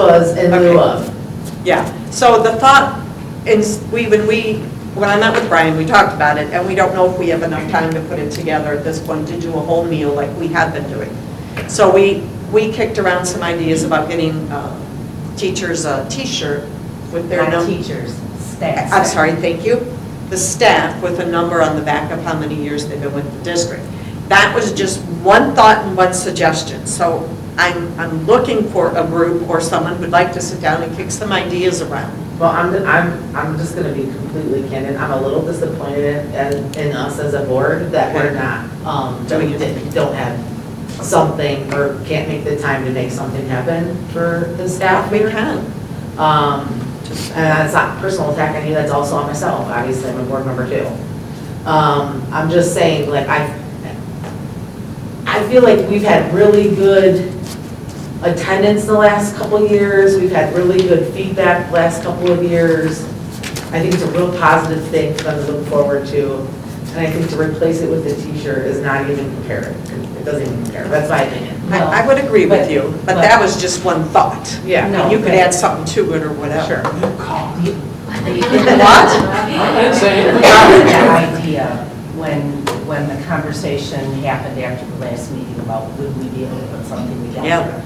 was in lieu of. Yeah, so the thought, is we, when we, when I met with Brian, we talked about it, and we don't know if we have enough time to put it together at this point to do a whole meal like we had been doing. So we, we kicked around some ideas about getting uh, teachers a T-shirt with their Not number. teachers, staff. I'm sorry, thank you, the staff with a number on the back of how many years they've been with the district. That was just one thought and one suggestion, so I'm, I'm looking for a group or someone who'd like to sit down and kick some ideas around. Well, I'm, I'm, I'm just gonna be completely candid, I'm a little disappointed in, in us as a board that we're not, um, that we didn't- don't have something or can't make the time to make something happen for the staff. We can, Um, and that's not personal attack on you, that's also on myself, obviously, I'm a board member too. Um, I'm just saying, like, I, I feel like we've had really good attendance the last couple of years, we've had really good feedback the last couple of years. I think it's a real positive thing for them to look forward to, and I think to replace it with a T-shirt is not even compared, it doesn't even compare, that's my opinion. I, I would agree with But- you, but that was just one thought. Yeah. And you could add something to it or whatever. Sure. That idea, when, when the conversation happened after the last meeting about would we be able to put something together?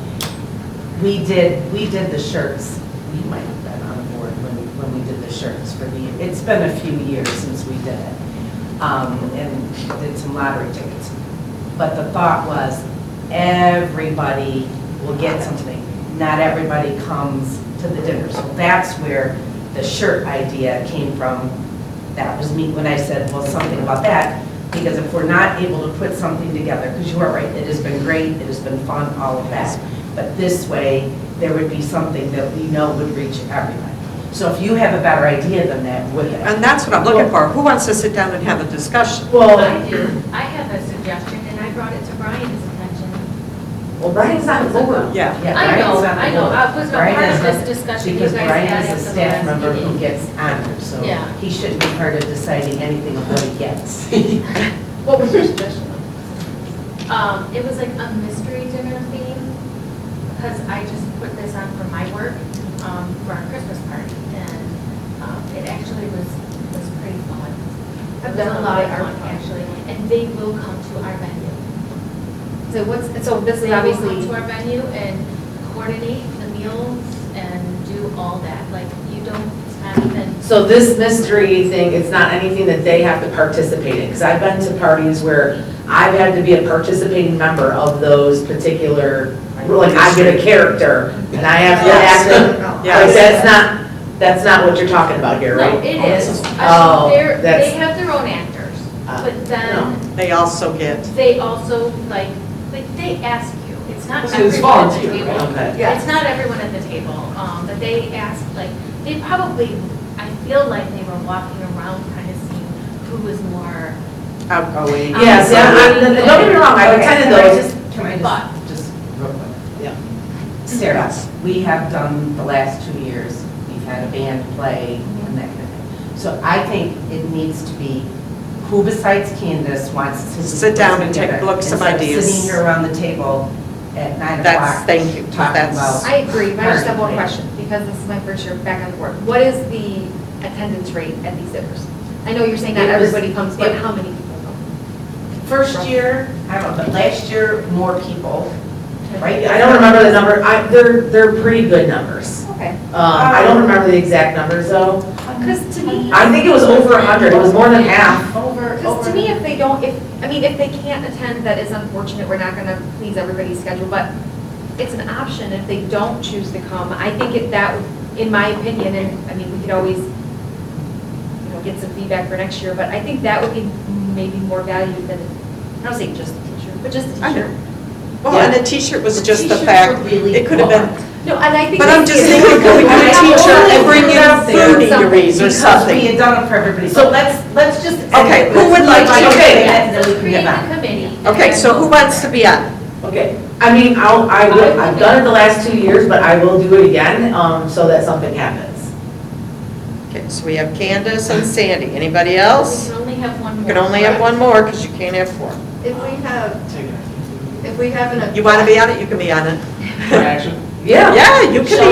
We did, we did the shirts, we might have been on the board when, when we did the shirts for the, it's been a few years since we did it. Um, and did some lottery tickets. But the thought was, everybody will get something. Not everybody comes to the dinner. So that's where the shirt idea came from. That was me when I said, well, something about that, because if we're not able to put something together, because you are right, it has been great, it has been fun, all of that. But this way, there would be something that we know would reach everyone. So if you have a better idea than that, would it? And that's what I'm looking for. Who wants to sit down and have a discussion? Well, I do, I have a suggestion, and I brought it to Brian's attention. well, Brian's not local. Yeah. Yeah, I know, Brian's on the I know, board. I was a Brian part of is a- this discussion you guys had Because Brian at is the a staff last member who meeting. gets honored, so Yeah. he shouldn't be part of deciding anything of what he gets. What was your suggestion? Um, it was like a mystery dinner theme, because I just put this on for my work, um, for our Christmas party, and, um, it actually was, was pretty fun. It was a lot of fun, actually, and they will come to our venue. So what's, so this They is will obviously, come to our venue and coordinate the meals and do all that, like, you don't, it's not even So this mystery thing, it's not anything that they have to participate in, because I've been to parties where I've had to be a participating member of those particular, like I've been a character, and I have to act, in- like, Yes. that's not, that's not what you're talking about here, No, right? it is. I Oh, mean, they're, that's- they have their own actors, Ah, but then They also get, they also, like, like, they ask you. It's not So it's everyone at the volunteer, table. okay. Yeah. It's not everyone at the table, um, but they ask, like, they probably, I feel like they were walking around kind of seeing who was more, outgoing. Yes, yeah, I- don't get me wrong, I've Okay, attended can I those. just- Can I just, But- just real quick? Yeah. Sarah, we have done the last two years, we've had a band play and that kind of thing. So I think it needs to be, who besides Candace wants to? Sit down and take- look some Instead of ideas. Sitting here around the table at nine o'clock. That's, thank you. Talking That's, about. I agree, but I just have one question, because this is my first year back on the board. What is the attendance rate at these dinners? I know you're saying not It was- everybody comes, but it- how many people come? First year, I don't know, but last year, more people, right? I don't remember the number, I, they're, they're pretty good numbers. Okay, Um, I don't remember the exact numbers though. because to me, I think it was over a hundred, it was more than half. Over, because over. to me, if they don't, if, I mean, if they can't attend, that is unfortunate, we're not gonna please everybody's schedule, but it's an option if they don't choose to come. I think it that, in my opinion, and, I mean, we could always, you know, get some feedback for next year, but I think that would be maybe more valued than, I don't say just a teacher, but just a I know. teacher. well, and the t-shirt was just the T-shirts fact, are really it could have been No, and I think. But I'm it's- just thinking, could we get a teacher and bring in food eateries or Because we something? had done it for everybody, so let's, let's just. Okay, who would like to- okay. And then we can get so create back. a committee. and Okay, so who then- wants to be on? Okay, I mean, I'll, I will, I've done it the last two years, but I will do it again, um, so that something happens. Okay, so we have Candace and Sandy. Anybody We else? can only have one You more. can only have one more because you can't have four. If we have, if we have an. You want to be on it, you can be on it. Action. Yeah, you can be